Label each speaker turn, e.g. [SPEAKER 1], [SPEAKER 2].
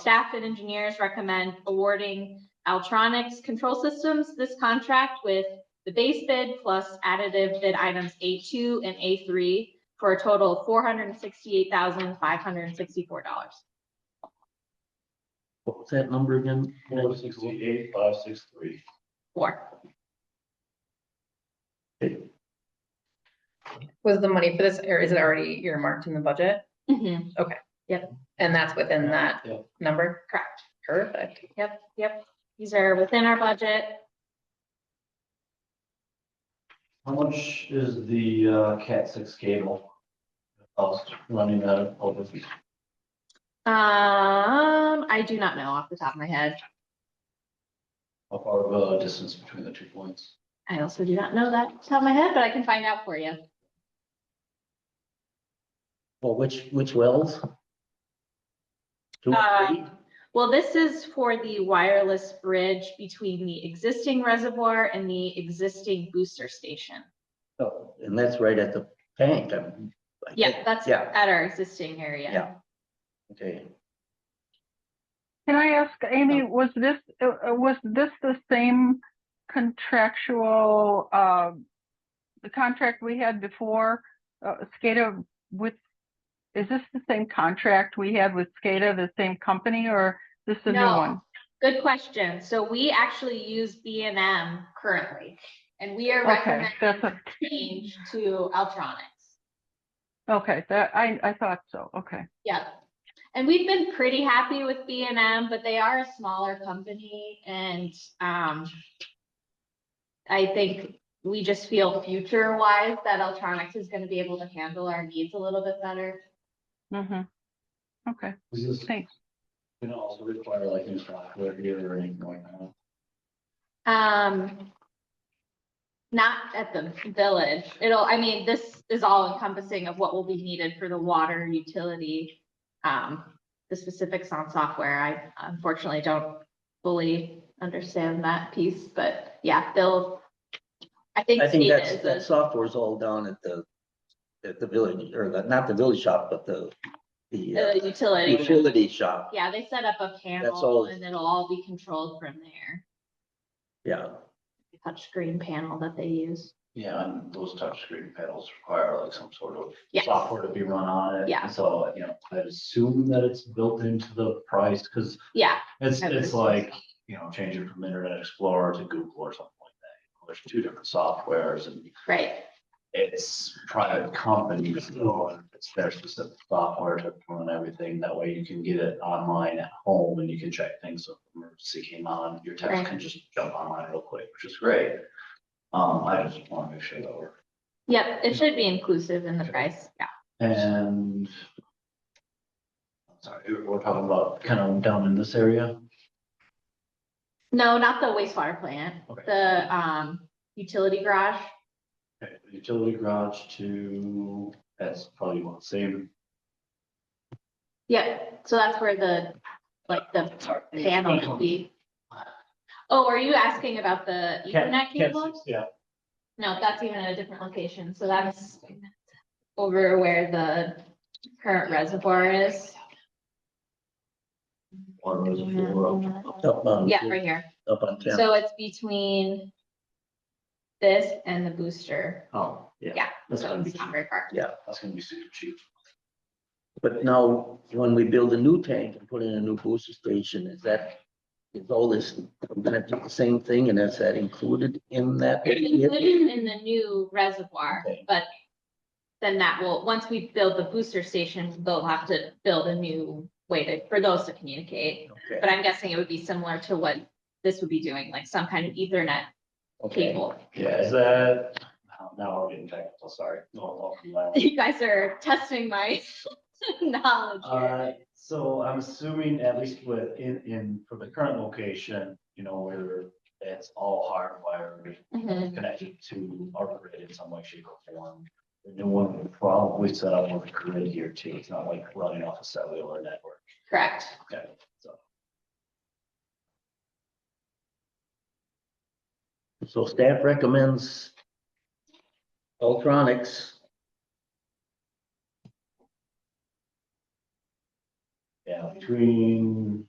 [SPEAKER 1] Staff and engineers recommend awarding Altronics Control Systems this contract with the base bid plus additive bid items A2 and A3 for a total of four hundred and sixty-eight thousand, five hundred and sixty-four dollars.
[SPEAKER 2] What was that number again?
[SPEAKER 3] Four sixty-eight, five six three.
[SPEAKER 1] Four.
[SPEAKER 4] Was the money for this, or is it already earmarked in the budget?
[SPEAKER 1] Mhm.
[SPEAKER 4] And that's within that
[SPEAKER 3] Yeah.
[SPEAKER 4] number?
[SPEAKER 1] Correct.
[SPEAKER 4] Perfect.
[SPEAKER 1] Yep, yep. These are within our budget.
[SPEAKER 3] How much is the uh, Cat six cable? Cost running out of over.
[SPEAKER 1] Um, I do not know off the top of my head.
[SPEAKER 3] How far of a distance between the two points?
[SPEAKER 1] I also do not know that off the top of my head, but I can find out for you.
[SPEAKER 2] Well, which, which wells? Two
[SPEAKER 1] Uh,
[SPEAKER 2] or three?
[SPEAKER 1] Well, this is for the wireless bridge between the existing reservoir and the existing booster station.
[SPEAKER 2] Oh, And that's right at the tank, I mean. I
[SPEAKER 1] Yeah,
[SPEAKER 2] think.
[SPEAKER 1] that's
[SPEAKER 2] Yeah,
[SPEAKER 1] at our existing area.
[SPEAKER 2] Yeah. okay.
[SPEAKER 5] Can I ask, Amy, was this, uh, uh, was this the same contractual, uh, the contract we had before, uh, SCADA with, is this the same contract we had with SCADA, the same company, or this a new
[SPEAKER 1] No.
[SPEAKER 5] one?
[SPEAKER 1] Good question. So we actually use B and M currently, and we are
[SPEAKER 5] Okay, that's
[SPEAKER 1] recommending
[SPEAKER 5] a,
[SPEAKER 1] change to Altronics.
[SPEAKER 5] okay, that, I, I thought so, okay.
[SPEAKER 1] Yeah. And we've been pretty happy with B and M, but they are a smaller company and, um, I think we just feel future wise that Altronics is gonna be able to handle our needs a little bit better.
[SPEAKER 5] Mm-hmm. Okay,
[SPEAKER 3] Is this,
[SPEAKER 5] thanks.
[SPEAKER 3] you know, also require like new software here or anything like that?
[SPEAKER 1] Um, not at the village. It'll, I mean, this is all encompassing of what will be needed for the water utility. Um, the specifics on software, I unfortunately don't fully understand that piece, but yeah, they'll. I think.
[SPEAKER 2] I think
[SPEAKER 1] SCADA
[SPEAKER 2] that's,
[SPEAKER 1] is
[SPEAKER 2] that
[SPEAKER 1] a-
[SPEAKER 2] software is all down at the, at the village, or the, not the village shop, but the, the uh,
[SPEAKER 1] a Utility.
[SPEAKER 2] utility shop,
[SPEAKER 1] Yeah, they set up a panel
[SPEAKER 2] all.
[SPEAKER 1] and it'll all be controlled from there.
[SPEAKER 2] yeah.
[SPEAKER 1] Touchscreen panel that they use.
[SPEAKER 3] Yeah, and those touchscreen panels require like some sort of
[SPEAKER 1] Yes.
[SPEAKER 3] software to be run on it.
[SPEAKER 1] Yeah.
[SPEAKER 3] So, you know, I'd assume that it's built into the price, because
[SPEAKER 1] Yeah,
[SPEAKER 3] it's,
[SPEAKER 1] I would
[SPEAKER 3] it's
[SPEAKER 1] assume
[SPEAKER 3] like, you know, changing from Internet Explorer to Google or something like that. There's two different softwares and
[SPEAKER 1] right.
[SPEAKER 3] it's private companies, so it's their specific software to run everything. That way you can get it online at home and you can check things. So if emergency came on, your
[SPEAKER 1] Right.
[SPEAKER 3] text can just jump online real quick, which is great. Um, I just want to make sure that we're
[SPEAKER 1] Yep, it should be inclusive in the price. Yeah.
[SPEAKER 3] And I'm sorry, we're talking about kind of down in this area.
[SPEAKER 1] No, not the wastewater plant,
[SPEAKER 3] Okay.
[SPEAKER 1] the um utility garage.
[SPEAKER 3] Okay, Utility garage to, that's probably one same.
[SPEAKER 1] Yep, so that's where the, like, the
[SPEAKER 3] Sorry.
[SPEAKER 1] panel would be. Oh, are you asking about the Ethernet cable?
[SPEAKER 3] Yeah,
[SPEAKER 1] No, that's even at a different location, so that's over where the current reservoir is.
[SPEAKER 3] one of those are for-
[SPEAKER 2] Up on,
[SPEAKER 1] Yeah, right here.
[SPEAKER 2] up on ten.
[SPEAKER 1] So it's between this and the booster,
[SPEAKER 3] Oh, yeah.
[SPEAKER 1] Yeah,
[SPEAKER 3] That's
[SPEAKER 1] so
[SPEAKER 3] gonna be,
[SPEAKER 1] it's not very far.
[SPEAKER 3] that's gonna be super cheap.
[SPEAKER 2] But now, when we build a new tank and put in a new booster station, is that, is all this, we're gonna do the same thing and is that included in that?
[SPEAKER 1] It's included in the new reservoir,
[SPEAKER 2] Okay.
[SPEAKER 1] but then that will, once we build the booster station, they'll have to build a new way to, for those to communicate.
[SPEAKER 2] Okay,
[SPEAKER 1] But I'm guessing it would be similar to what this would be doing, like some kind of ethernet
[SPEAKER 2] okay.
[SPEAKER 1] cable.
[SPEAKER 3] Yeah, is that, um, now- now we're getting technical, sorry. No, no, no.
[SPEAKER 1] You guys are testing my knowledge
[SPEAKER 3] Uh,
[SPEAKER 1] here.
[SPEAKER 3] so I'm assuming at least with, in, in, for the current location, you know, where it's all hardwired
[SPEAKER 2] Uh-huh.
[SPEAKER 1] Mhm.
[SPEAKER 3] connected to our grid in some way, shape or form. The new one would probably set up on the grid here too. It's not like running off a cellular network.
[SPEAKER 1] Correct.
[SPEAKER 3] Okay, so.
[SPEAKER 2] So staff recommends Ultronics.
[SPEAKER 3] Yeah, between